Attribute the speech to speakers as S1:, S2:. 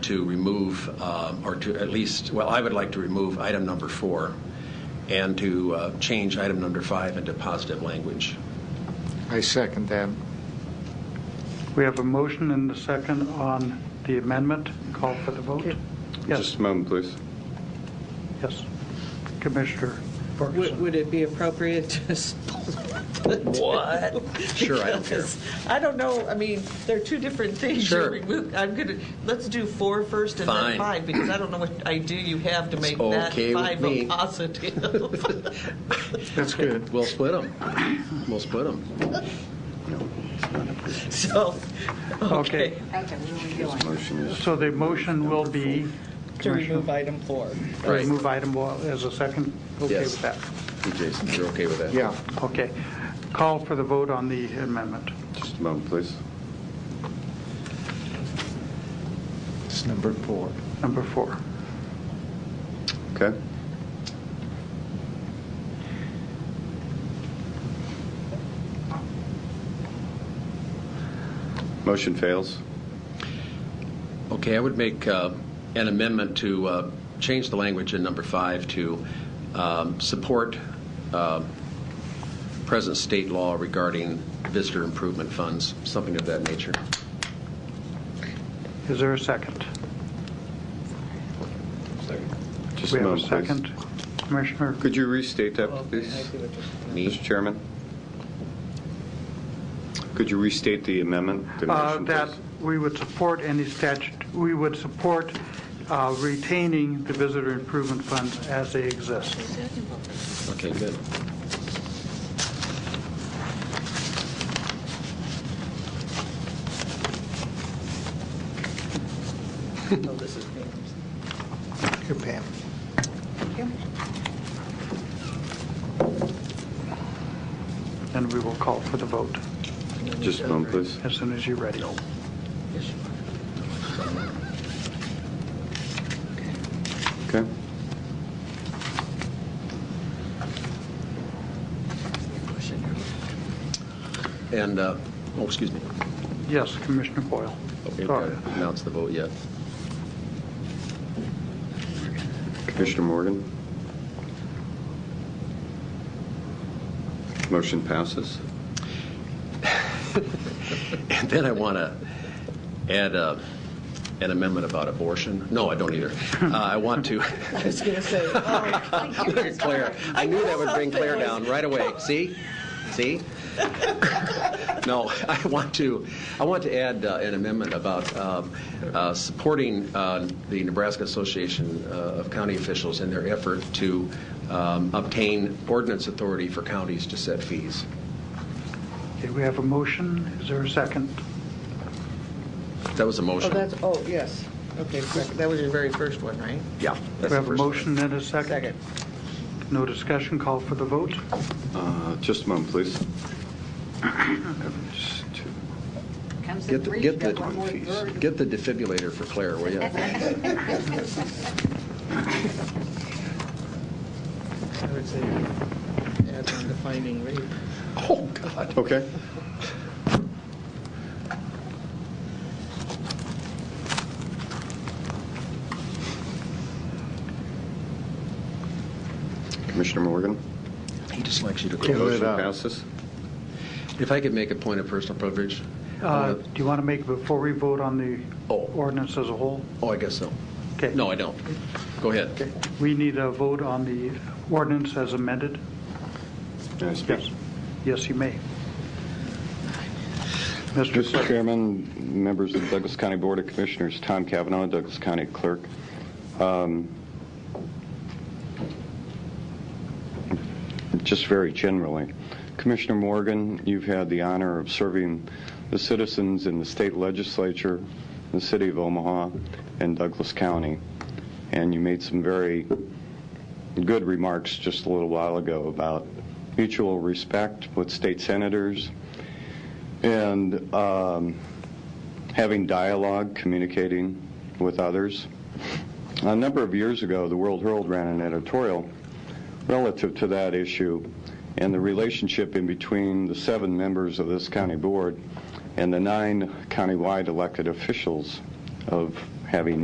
S1: to remove, um, or to at least, well, I would like to remove item number four and to uh, change item number five into positive language.
S2: I second that.
S3: We have a motion and a second on the amendment. Call for the vote. Yes,
S4: Just a moment, please.
S3: yes. Commissioner
S5: Would,
S3: Ferguson.
S5: would it be appropriate to just what?
S1: Sure, I don't care.
S5: Because I don't know. I mean, there are two different things.
S1: Sure.
S5: You're remo- I'm gonna let's do four first and
S1: Fine.
S5: then five because I don't know what idea you have to make
S1: okay
S5: that
S1: with
S5: five
S1: me.
S5: a positive.
S2: That's good.
S1: We'll split them. We'll split them.
S5: so, okay.
S3: Okay,
S6: Okay, where are we going?
S4: Motion is,
S3: so the motion will be
S5: To remove item four.
S3: to remove item one as a second. Okay
S1: Yes.
S3: with that.
S1: Jason, you're okay with that?
S2: Yeah,
S3: Okay. Call for the vote on the amendment.
S4: just a moment, please.
S2: it's number four.
S3: Number four.
S4: Okay? Motion fails.
S1: Okay, I would make uh, an amendment to uh, change the language in number five to um, support uh, present state law regarding visitor improvement funds, something of that nature.
S3: Is there a second?
S4: Just
S3: We
S4: a
S3: have a
S4: moment, please.
S3: second. Commissioner, uh,
S4: Could you restate that,
S5: Okay, I
S4: please?
S5: see what you're-
S1: Me?
S4: Mr. Chairman? Could you restate the amendment? the
S3: uh,
S4: motion,
S3: that
S4: please?
S3: we would support any statute, we would support uh, retaining the visitor improvement funds as they exist.
S1: Okay, good.
S5: Oh, this is me.
S2: Here, Pam.
S3: And we will call for the vote
S4: Just a moment, please.
S3: as soon as you're ready.
S4: Okay?
S1: And, uh, oh, excuse me.
S3: Yes, Commissioner Boyle.
S1: Okay, we've got
S3: Sorry.
S1: to announce the vote yet.
S4: Commissioner Morgan? Motion passes.
S1: And then I want to add uh, an amendment about abortion. No, I don't either. Uh, I want to,
S5: I was going to say, oh,
S1: Claire, I knew that would bring Claire down right away. See? See? No, I want to, I want to add uh, an amendment about um, uh, supporting uh, the Nebraska Association uh, of County Officials in their effort to um, obtain ordinance authority for counties to set fees.
S3: Okay, we have a motion. Is there a second?
S1: That was a
S5: oh,
S1: motion.
S5: that's, oh, yes. Okay, second. that was your very first one, right?
S1: Yeah.
S3: We
S1: that's the
S3: have a
S1: first one.
S3: motion and a second. No discussion, call for the vote.
S4: Uh, Just a moment, please. Just two.
S6: Comes in
S1: Get the,
S6: three,
S1: get the,
S6: got one more bird.
S1: get the defibrillator for Claire, will you?
S5: I would say add on defining rape.
S1: Oh, God.
S4: Okay. Commissioner Morgan?
S1: He just likes you to
S2: Give
S1: close.
S2: it up.
S4: Motion passes.
S1: If I could make a point of personal privilege? I
S3: Uh,
S1: wanna-
S3: Do you want to make, before we vote on the
S1: Oh.
S3: ordinance as a whole?
S1: Oh, I guess so.
S3: Okay.
S1: No, I don't. Go ahead.
S3: We need a vote on the ordinance as amended?
S4: May I speak?
S3: Yes, you may. Mr.
S4: Mr.
S3: Clerk,
S4: Chairman, members of the Douglas County Board of Commissioners, Tom Cavanaugh, Douglas County Clerk. Um, Just very generally, Commissioner Morgan, you've had the honor of serving the citizens in the state legislature, the city of Omaha, and Douglas County, and you made some very good remarks just a little while ago about mutual respect with state senators, and um, having dialogue, communicating with others. A number of years ago, the World Herald ran an editorial relative to that issue and the relationship in between the seven members of this county board and the nine countywide elected officials of having